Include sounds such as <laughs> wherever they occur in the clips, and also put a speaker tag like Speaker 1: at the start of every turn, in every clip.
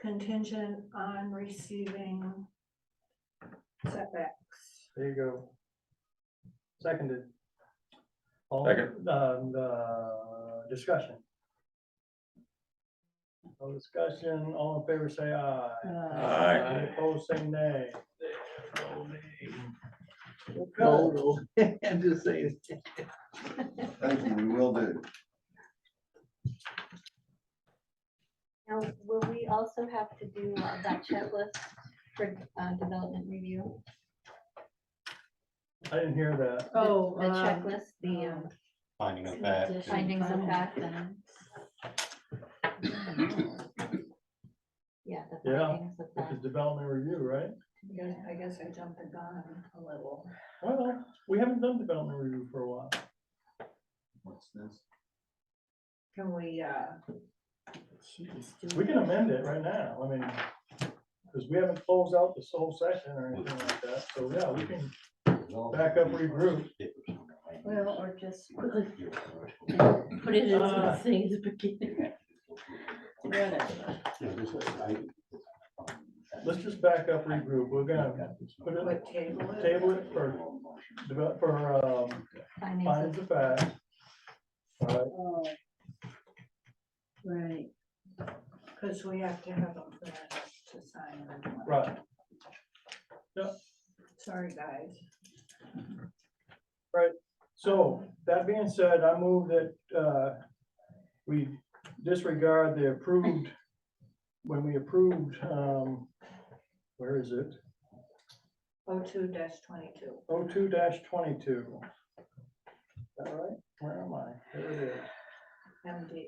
Speaker 1: contingent on receiving setbacks.
Speaker 2: There you go. Seconded. All,
Speaker 3: Second.
Speaker 2: Um, the discussion. No discussion, all in favor say aye.
Speaker 1: Uh,
Speaker 3: Aye.
Speaker 2: Any Opposed, say nay.
Speaker 4: No, no, <laughs> I'm just saying.
Speaker 5: Thank you, we will do.
Speaker 6: Now, will we also have to do uh, that checklist for uh, development review?
Speaker 2: I didn't hear that.
Speaker 6: The-
Speaker 1: Oh,
Speaker 6: The
Speaker 1: um,
Speaker 6: checklist, the um,
Speaker 7: Finding of fact.
Speaker 6: findings of fact and. Yeah. the
Speaker 2: Yeah,
Speaker 6: findings of
Speaker 2: This is
Speaker 6: fact.
Speaker 2: development review, right?
Speaker 1: Yeah, I guess I jumped the gun a little.
Speaker 2: Well, we haven't done development review for a while.
Speaker 5: What's this?
Speaker 1: Can we, uh,
Speaker 2: We can amend it right now, I mean, because we haven't closed out this whole session or anything like that, so yeah, we can back up, regroup.
Speaker 8: Well, or just put it-
Speaker 7: Yeah,
Speaker 8: put it in
Speaker 2: Uh.
Speaker 8: the thing at the beginning. Whatever.
Speaker 7: this is- I-
Speaker 2: Let's just back up, regroup, we're gonna put it,
Speaker 1: what table it?
Speaker 2: table it for, develop, for, um,
Speaker 6: Findings of-
Speaker 2: findings of fact. Alright,
Speaker 8: Oh. Right,
Speaker 1: Cause we have to have them for us to sign. them.
Speaker 2: right,
Speaker 1: Sorry, guys.
Speaker 2: so, that being said, I move that, uh, we disregard the approved, when we approved, um, where is it?
Speaker 1: O two dash twenty-two.
Speaker 2: O two dash twenty-two. Is that right? Where am I? There it is.
Speaker 1: MD.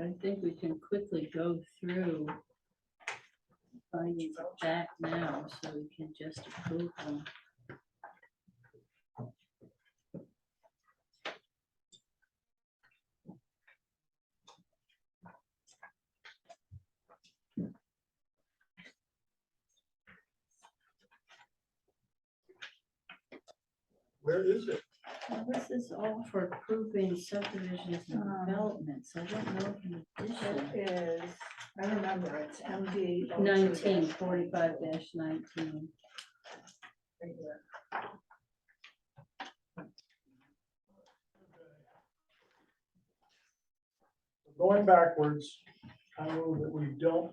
Speaker 8: I think we can quickly go through findings of fact now, so we can just approve them.
Speaker 2: Where is it?
Speaker 8: Now, this is all for approving subdivisions and
Speaker 1: Um.
Speaker 8: developments, I don't know if in addition.
Speaker 1: It is, I remember it's MD. 02-22.
Speaker 8: Nineteen forty-five dash nineteen.
Speaker 1: Right here.
Speaker 2: Going backwards, I move that we don't,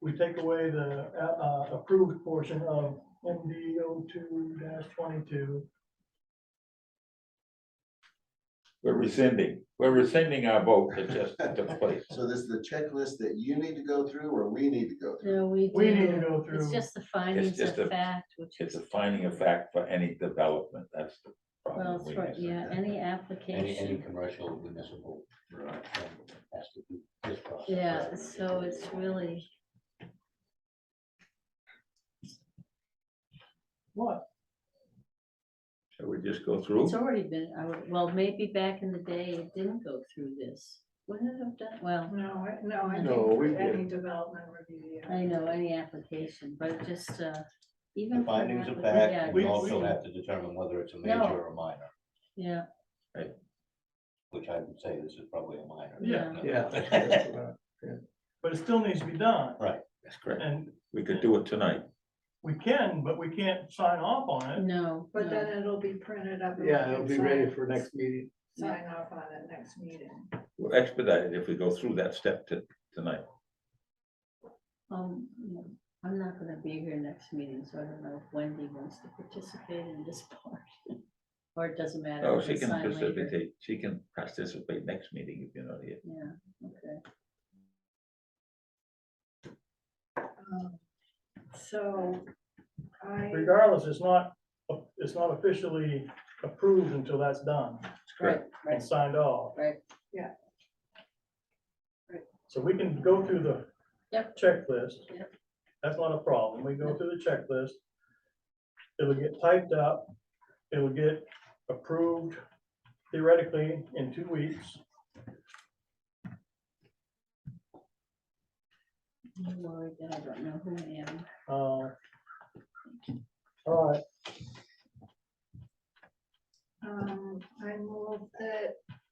Speaker 2: we take away the, uh, uh, approved portion of MD O two dash twenty-two.
Speaker 3: We're rescinding, we're rescinding our vote that just took place.
Speaker 5: So this is the checklist that you need to go through or we need to go through?
Speaker 8: No, we do.
Speaker 2: We need to go through.
Speaker 8: It's just the findings
Speaker 3: just
Speaker 8: of
Speaker 3: a-
Speaker 8: fact, which
Speaker 3: It's a finding of fact for any development, that's the problem.
Speaker 8: Well, that's right, yeah, any application.
Speaker 7: Any, any commercial municipal. um, has to do this process.
Speaker 8: Yeah, so it's really,
Speaker 2: What?
Speaker 3: Shall we just go through?
Speaker 8: it's already been, I would- well, maybe back in the day, it didn't go through this. Wouldn't it have done, well,
Speaker 1: No, I- no, I
Speaker 5: No, we
Speaker 1: think for
Speaker 5: did.
Speaker 1: any development review. yeah.
Speaker 8: I know, any application, but just, uh, even.
Speaker 7: The
Speaker 8: for an
Speaker 7: findings of
Speaker 8: applica-
Speaker 7: fact,
Speaker 2: we-
Speaker 7: we
Speaker 2: we-
Speaker 7: also have to determine whether it's a major
Speaker 8: No.
Speaker 7: or a minor,
Speaker 8: Yeah,
Speaker 7: which I would say this is probably a minor.
Speaker 8: Yeah.
Speaker 7: <laughs> Yeah.
Speaker 2: But it still needs to be done,
Speaker 3: That's correct.
Speaker 2: and
Speaker 3: We could do it tonight.
Speaker 2: we can, but we can't sign off on
Speaker 8: yeah,
Speaker 2: it.
Speaker 8: no,
Speaker 1: But
Speaker 8: no,
Speaker 1: then it'll be printed up. and we
Speaker 4: Yeah,
Speaker 1: can
Speaker 4: it'll be
Speaker 1: sign-
Speaker 4: ready for next meeting.
Speaker 1: Sign off on it next meeting.
Speaker 3: We'll expedite it if we go through that step to, tonight.
Speaker 8: um, yeah, I'm not gonna be here next meeting, so I don't know if Wendy wants to participate in this part. <laughs> Or it doesn't matter.
Speaker 3: Oh,
Speaker 8: we
Speaker 3: she can
Speaker 8: sign later.
Speaker 3: participate, she can participate next meeting if you're not here.
Speaker 8: Yeah, okay,
Speaker 1: Um, So I,
Speaker 2: Regardless, it's not, it's not officially approved until that's done
Speaker 8: right,
Speaker 2: and
Speaker 8: right,
Speaker 2: signed off.
Speaker 8: right,
Speaker 2: So we can go through the
Speaker 8: Yep.
Speaker 2: checklist.
Speaker 8: Yep.
Speaker 2: That's not a problem. We go through the checklist. It'll get typed up. It'll get approved theoretically in two weeks.
Speaker 8: I'm worried that I don't know who I am.
Speaker 2: Uh, All right,
Speaker 1: um, I move that